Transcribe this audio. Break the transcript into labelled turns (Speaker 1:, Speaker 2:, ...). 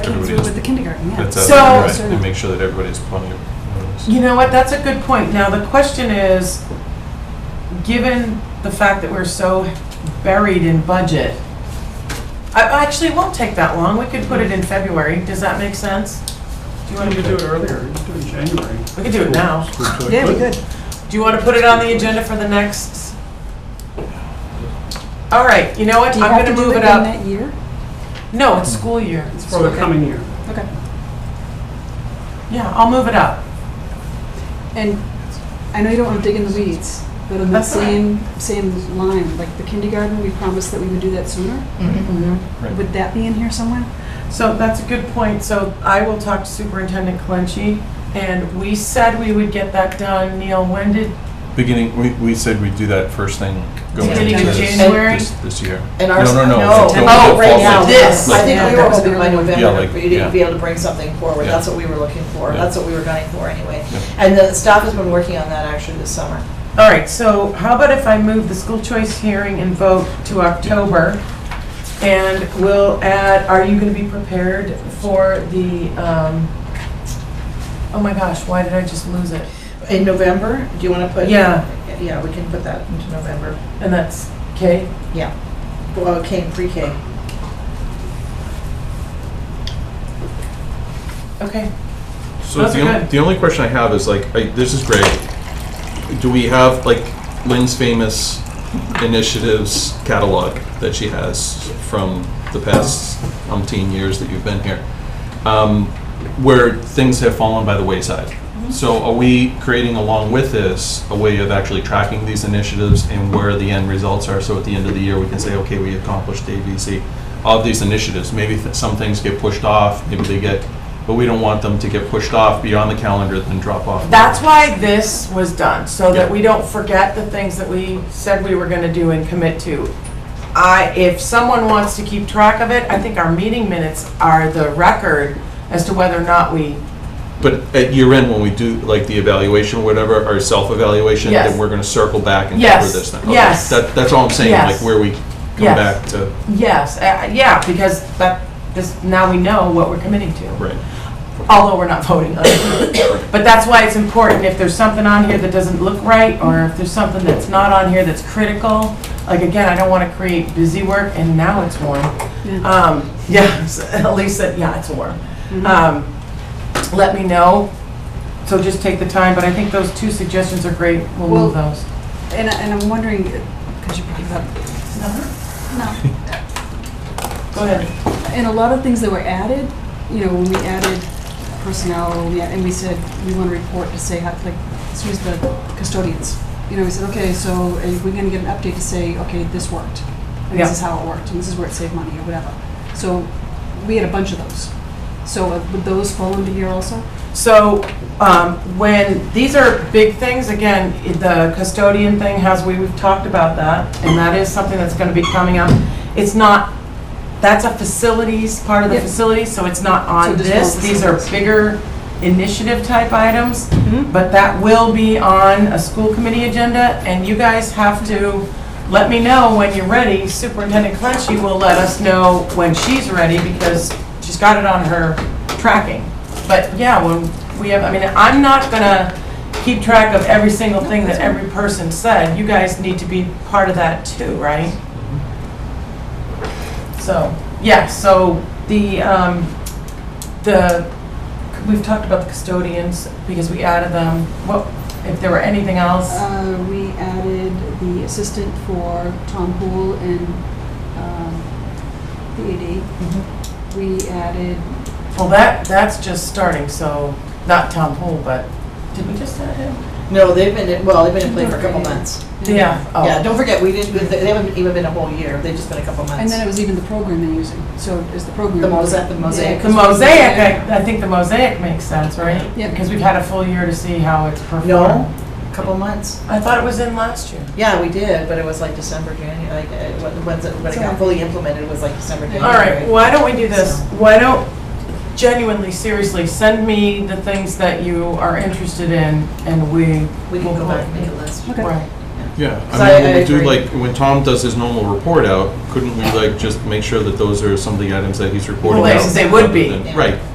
Speaker 1: kids
Speaker 2: everybody
Speaker 1: were
Speaker 2: is-
Speaker 1: with the kindergarten, yeah.
Speaker 2: that's out
Speaker 3: So-
Speaker 2: there, right, and make sure that everybody has plenty of notice.
Speaker 3: You know what, that's a good point. Now, the question is, given the fact that we're so buried in budget, I, actually, it won't take that long. We could put it in February. Does that make sense? Do you
Speaker 4: Why
Speaker 3: want
Speaker 4: don't you
Speaker 3: to,
Speaker 4: do it earlier, you do it in January.
Speaker 3: we could do it now.
Speaker 4: School choice.
Speaker 1: Yeah, we could.
Speaker 3: Do you want to put it on the agenda for the next? All right, you know what,
Speaker 1: Do you
Speaker 3: I'm
Speaker 1: have
Speaker 3: going
Speaker 1: to do
Speaker 3: to move
Speaker 1: it in
Speaker 3: it up.
Speaker 1: that year?
Speaker 3: No, it's school year.
Speaker 4: It's for the coming year.
Speaker 1: Okay.
Speaker 3: Yeah, I'll move it up.
Speaker 1: And I know you don't want to dig in the weeds, but on the
Speaker 3: That's all right.
Speaker 1: same, same line, like the kindergarten, we promised that we would do that sooner. Mm-hmm.
Speaker 2: Right.
Speaker 1: Would that be in here somewhere?
Speaker 3: So that's a good point. So I will talk to Superintendent Clenchey, and we said we would get that done. Neil, when did,
Speaker 2: Beginning, we, we said we'd do that first thing going into
Speaker 3: Beginning
Speaker 5: of
Speaker 2: this,
Speaker 3: January?
Speaker 2: this, this year.
Speaker 5: And our-
Speaker 2: No, no, no.
Speaker 5: no.
Speaker 2: go- go
Speaker 3: Oh,
Speaker 5: Right
Speaker 2: fall
Speaker 5: now,
Speaker 2: thing.
Speaker 3: This.
Speaker 5: I think we were hoping by
Speaker 2: Yeah, like,
Speaker 5: November, we'd
Speaker 2: yeah.
Speaker 5: be able to bring something forward,
Speaker 2: Yeah.
Speaker 5: that's what we were looking for,
Speaker 2: Yeah.
Speaker 5: that's what we were gunning for anyway.
Speaker 2: Yeah.
Speaker 5: And the staff has been working on that actually this summer.
Speaker 3: all right, so how about if I move the school choice hearing and vote to October? And we'll add, are you going to be prepared for the, um, oh my gosh, why did I just lose it?
Speaker 5: In November, do you want to put?
Speaker 3: Yeah.
Speaker 5: Yeah, we can put that into November,
Speaker 3: And that's Kay?
Speaker 5: yeah. Well, K and pre-K.
Speaker 3: Okay.
Speaker 2: So
Speaker 3: Those
Speaker 2: the,
Speaker 3: are
Speaker 2: on-
Speaker 3: good.
Speaker 2: the only question I have is like, I, this is great. Do we have like Lynn's famous initiatives catalog that she has from the past umpteen years that you've been here? Um, where things have fallen by the wayside.
Speaker 3: Mm-hmm.
Speaker 2: So are we creating along with this a way of actually tracking these initiatives and where the end results are? So at the end of the year, we can say, okay, we accomplished A, B, C of these initiatives. Maybe th- some things get pushed off, maybe they get, but we don't want them to get pushed off beyond the calendar then drop off.
Speaker 3: That's why this was done, so that
Speaker 2: Yeah.
Speaker 3: we don't forget the things that we said we were gonna do and commit to. I, if someone wants to keep track of it, I think our meeting minutes are the record as to whether or not we,
Speaker 2: But at year end, when we do like the evaluation or whatever, our self-evaluation,
Speaker 3: Yes.
Speaker 2: then we're gonna circle back and cover
Speaker 3: Yes.
Speaker 2: this thing. Okay.
Speaker 3: Yes.
Speaker 2: That, that's all I'm saying,
Speaker 3: Yes.
Speaker 2: like where we come
Speaker 3: Yes.
Speaker 2: back to,
Speaker 3: yes, uh, yeah, because that, this, now we know what we're committing to,
Speaker 2: right.
Speaker 3: although we're not voting on it. But that's why it's important, if there's something on here that doesn't look right, or if there's something that's not on here that's critical, like again, I don't wanna create busy work, and now it's warm.
Speaker 1: Yeah. Mm-hmm.
Speaker 3: Um, yeah, so at least, that- yeah, it's warm.
Speaker 1: uh,
Speaker 3: Um, let me know, so just take the time, but I think those two suggestions are great, we'll move
Speaker 1: Well-
Speaker 3: those.
Speaker 1: And, I- and I'm wondering, could you bring it up? No.
Speaker 3: Go ahead.
Speaker 1: And a lot of things that were added, you know, when we added personnel, we- and we said, we want to report to say, how like, this was the custodians. You know, we said, okay, so are we going to get an update to say, okay, this worked? And this
Speaker 3: Yeah.
Speaker 1: is how it worked, and this is where it saved money, or whatever. So we had a bunch of those. So uh, would those fall into here also?
Speaker 3: So, um, when, these are big things, again, i- the custodian thing has, we- we've talked about that, and that is something that's gonna be coming up. It's not, that's a facilities, part of the
Speaker 1: Yep.
Speaker 3: facilities, so it's not
Speaker 1: So
Speaker 3: on
Speaker 1: just
Speaker 3: this.
Speaker 1: all
Speaker 3: These are
Speaker 1: facilities.
Speaker 3: bigger initiative type items, but that will be on a school committee agenda, and you guys have to let me know when you're ready. Superintendent Clenchey will let us know when she's ready, because she's got it on her tracking. But yeah, when we have, I mean, I'm not gonna keep track of every single thing that every person said. You guys need to be part of that too, right? So, yeah, so the, um, the, we've talked about the custodians because we added them. What, if there were anything else?
Speaker 1: Uh, we added the assistant for Tom Pool and, um, the AD.
Speaker 5: Mm-hmm.
Speaker 1: We added,
Speaker 3: Well, that, that's just starting, so, not Tom Pool, but, did we just add him?
Speaker 5: No, they've been, in- well, they've been in play for a couple months.
Speaker 3: Yeah,
Speaker 5: Yeah,
Speaker 3: oh,
Speaker 5: don't forget, we didn't, they haven't even been a whole year, they've just been a couple months.
Speaker 1: And then it was even the program they're using, so is the program.
Speaker 5: The mosaic- the mosaic.
Speaker 1: Yeah,
Speaker 3: the mosaic, I, I think the mosaic makes sense, right?
Speaker 1: Yeah.
Speaker 3: Because we've had a full year to see how it's performed.
Speaker 5: No, couple months.
Speaker 3: I thought it was in last year.
Speaker 5: Yeah, we did, but it was like December, January, like, uh, when- once it, when it got fully implemented, it was like December, January.
Speaker 3: All right, why don't we do this?
Speaker 5: So-
Speaker 3: Why don't, genuinely, seriously, send me the things that you are interested in and we.
Speaker 5: We can
Speaker 3: will
Speaker 5: go back and make a list.
Speaker 1: Okay.
Speaker 3: Right.
Speaker 2: Yeah,
Speaker 5: So I-
Speaker 2: I mean, when
Speaker 5: I
Speaker 2: we do
Speaker 5: agree.
Speaker 2: like, when Tom does his normal report out, couldn't we like just make sure that those are some of the items that he's reporting
Speaker 3: Well,
Speaker 2: out?
Speaker 3: they- they would
Speaker 2: rather
Speaker 3: be.
Speaker 2: than-
Speaker 5: Yeah.
Speaker 2: Right,